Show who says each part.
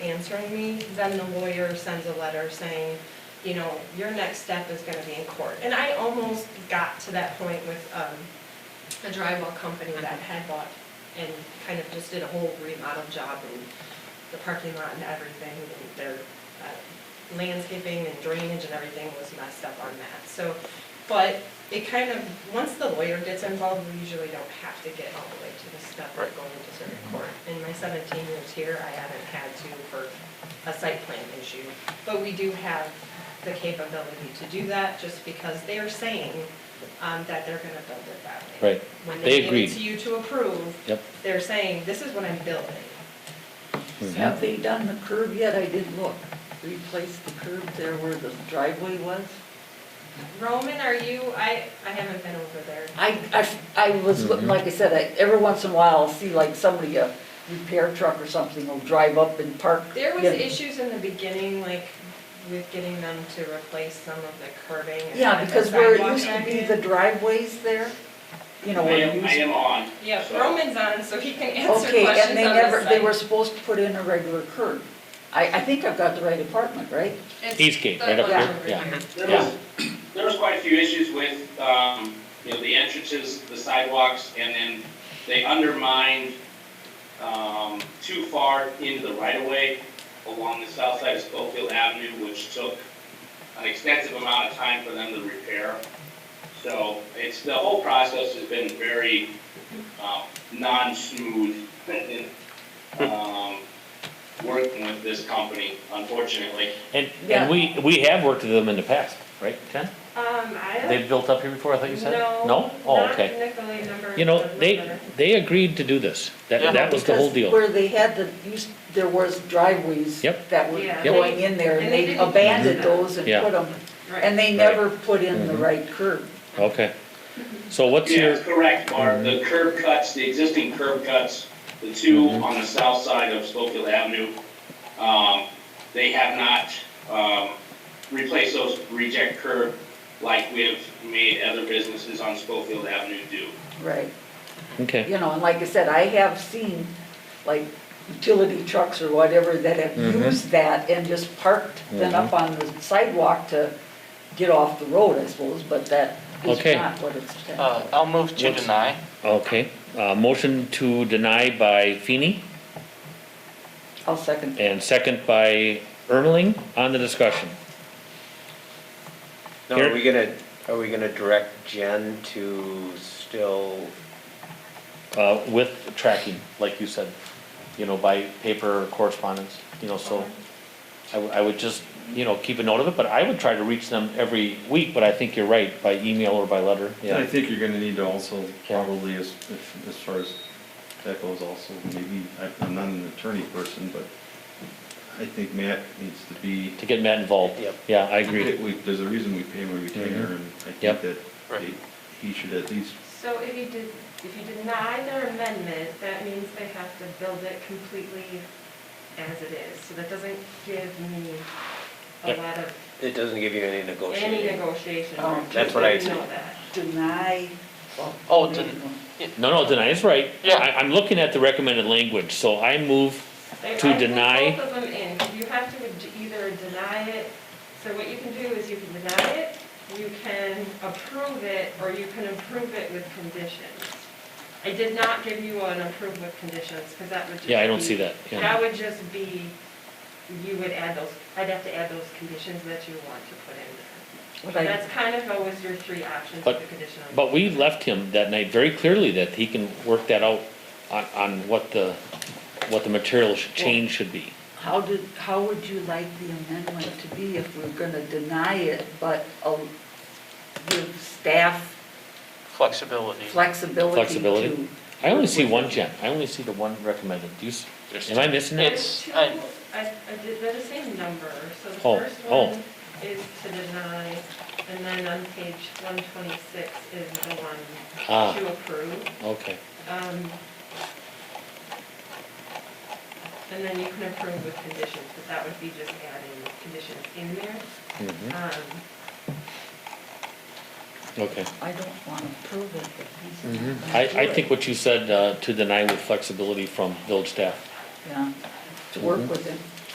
Speaker 1: answering me, then the lawyer sends a letter saying, you know, your next step is gonna be in court. And I almost got to that point with, um, a drywall company that had bought and kind of just did a whole remodel job and the parking lot and everything, and their uh, landscaping and drainage and everything was messed up on that. So, but it kind of, once the lawyer gets involved, we usually don't have to get all the way to the step of
Speaker 2: Right.
Speaker 1: going to circuit court. In my seventeen years here, I haven't had to for a site plan issue, but we do have the capability to do that, just because they are saying um, that they're gonna build it that way.
Speaker 2: Right.
Speaker 1: When
Speaker 2: They
Speaker 1: they give it
Speaker 2: agreed.
Speaker 1: to you to approve,
Speaker 2: Yep.
Speaker 1: they're saying, this is what I'm building.
Speaker 3: Have they done the curb yet? I did look, replace the curb there where the driveway was.
Speaker 1: Roman, are you, I, I haven't been over there.
Speaker 3: I, I, I was, looking- like I said, I, every once in a while, I'll see like somebody, a repair truck or something will drive up and park.
Speaker 1: There was
Speaker 3: Yeah.
Speaker 1: issues in the beginning, like with getting them to replace some of the curbing. and
Speaker 3: Yeah,
Speaker 1: put the
Speaker 3: because where it
Speaker 1: sidewalk
Speaker 3: used to
Speaker 1: back
Speaker 3: be
Speaker 1: in.
Speaker 3: the driveways there, you know,
Speaker 4: I
Speaker 3: where it
Speaker 4: am, I
Speaker 3: used.
Speaker 4: am on.
Speaker 1: Yeah,
Speaker 4: so-
Speaker 1: Roman's on, so he can answer
Speaker 3: Okay,
Speaker 1: questions
Speaker 3: and they
Speaker 1: on this
Speaker 3: never, they
Speaker 1: side.
Speaker 3: were supposed to put in a regular curb. I, I think I've got the right apartment, right?
Speaker 1: It's
Speaker 2: Eastgate,
Speaker 1: the
Speaker 2: right up
Speaker 1: one
Speaker 2: here,
Speaker 1: over
Speaker 2: yeah.
Speaker 4: There
Speaker 2: Yeah.
Speaker 4: was, there was quite a few issues with, um, you know, the entrances, the sidewalks, and then they undermined, um, too far into the right of way along the south side of Schofield Avenue, which took an extensive amount of time for them to repair. So it's, the whole process has been very, um, non-smooth in, um, working with this company, unfortunately.
Speaker 2: And,
Speaker 3: Yeah.
Speaker 2: and we, we have worked with them in the past, right, Ken?
Speaker 3: Mm-hmm.
Speaker 1: Um, I
Speaker 2: They've built up here before, I thought you said?
Speaker 1: No.
Speaker 2: No? Oh,
Speaker 1: not
Speaker 2: okay.
Speaker 1: Nicolay number.
Speaker 2: You know,
Speaker 1: the
Speaker 2: they,
Speaker 1: number.
Speaker 2: they agreed to do this. That, that was the whole deal.
Speaker 3: Because Where they had the, used, there was driveways
Speaker 2: Yep.
Speaker 3: that were
Speaker 1: Yeah.
Speaker 3: going in there,
Speaker 1: And
Speaker 3: and
Speaker 1: they
Speaker 3: they
Speaker 1: didn't-
Speaker 3: abandoned those and
Speaker 2: Yeah.
Speaker 3: put them,
Speaker 1: Right.
Speaker 3: and they
Speaker 2: Right. Mm-hmm.
Speaker 3: never put in the right curb.
Speaker 2: Okay. So what's your, Mm-hmm.
Speaker 4: Yeah, correct, Barb, the curb cuts, the existing curb cuts, the two on the south side of Schofield Avenue, um, they have not, um, replaced those reject curb like we have made other businesses on Schofield Avenue do.
Speaker 3: Right.
Speaker 2: okay,
Speaker 3: You know, and like I said, I have seen, like, utility trucks or whatever that have
Speaker 2: Mhm.
Speaker 3: used that and just parked them up
Speaker 2: Mm-hmm.
Speaker 3: on the sidewalk to get off the road, I suppose, but that is
Speaker 2: Okay.
Speaker 3: not what it's.
Speaker 5: Uh, I'll move to
Speaker 2: What's-
Speaker 5: deny.
Speaker 2: okay. Uh, motion to deny by Feeny
Speaker 3: I'll second.
Speaker 2: and second by Ermeling on the discussion.
Speaker 6: Now, are we gonna, are we gonna direct Jen to still,
Speaker 2: Uh, with tracking, like you said, you know, by paper or correspondence, you know, so. I, would- I would just, you know, keep a note of it, but I would try to reach them every week, but I think you're right, by email or by letter,
Speaker 7: And I
Speaker 2: yeah.
Speaker 7: think you're gonna need to also probably as, if- as far as that goes also, maybe, I- I'm not an attorney person, but I think Matt needs to be,
Speaker 2: To get Matt involved.
Speaker 6: Yep.
Speaker 2: Yeah, I
Speaker 7: we-
Speaker 2: agree.
Speaker 7: we- there's a reason we pay him a retainer and I
Speaker 2: Mm-hmm. Yep.
Speaker 7: think that
Speaker 5: Right.
Speaker 7: he he should at least,
Speaker 1: So if you did, if you deny their amendment, that means they have to build it completely as it is. So that doesn't give me a
Speaker 2: Yep.
Speaker 1: lot of,
Speaker 6: it doesn't give you any
Speaker 1: any
Speaker 6: negotiating?
Speaker 1: negotiation.
Speaker 3: Oh.
Speaker 1: room.
Speaker 6: That's what I
Speaker 1: You know that.
Speaker 3: Deny. well,
Speaker 5: Oh,
Speaker 3: maybe
Speaker 5: den-
Speaker 3: one.
Speaker 2: No, no, deny is right.
Speaker 5: Yeah.
Speaker 2: I, I'm looking at the recommended language, so I move,
Speaker 1: They-
Speaker 2: To
Speaker 1: I put
Speaker 2: deny-
Speaker 1: Both of them in. You have to ad- either deny it, so what you can do is you can deny it, you can approve it, or you can approve it with conditions. I did not give you an approve with conditions, because that would just
Speaker 2: yeah, I don't
Speaker 1: be-
Speaker 2: see that, yeah.
Speaker 1: That would just be, you would add those, I'd have to add those conditions that you want to put in
Speaker 3: What
Speaker 1: there.
Speaker 3: I-
Speaker 1: That's kind of always your three options with
Speaker 2: But-
Speaker 1: the conditional.
Speaker 2: But we left him that night very clearly that he can work that out on, on what the, what the material should- change should be.
Speaker 3: How did, how would you like the amendment to be if we're gonna deny it, but uh, give staff
Speaker 5: Flexibility.
Speaker 3: flexibility
Speaker 2: Flexibility?
Speaker 3: to?
Speaker 2: I only see one, Jen, I only see the one recommended, do you, s- am I missing that?
Speaker 5: It's-
Speaker 1: Two,
Speaker 5: I-
Speaker 1: I, I did, they're the same number, so the
Speaker 2: Oh,
Speaker 1: first
Speaker 2: oh.
Speaker 1: one is to deny, and then on page one twenty-six is the one
Speaker 2: Ah.
Speaker 1: to approve.
Speaker 2: Okay,
Speaker 1: Um, And then you can approve with conditions, but that would be just adding conditions in there.
Speaker 2: Mhm.
Speaker 1: Um,
Speaker 2: okay.
Speaker 3: I don't wanna prove it, but he's. gonna
Speaker 2: I,
Speaker 3: do
Speaker 2: I
Speaker 3: it.
Speaker 2: think what you said, uh, to deny with flexibility from village staff,
Speaker 3: Yeah, to work with him.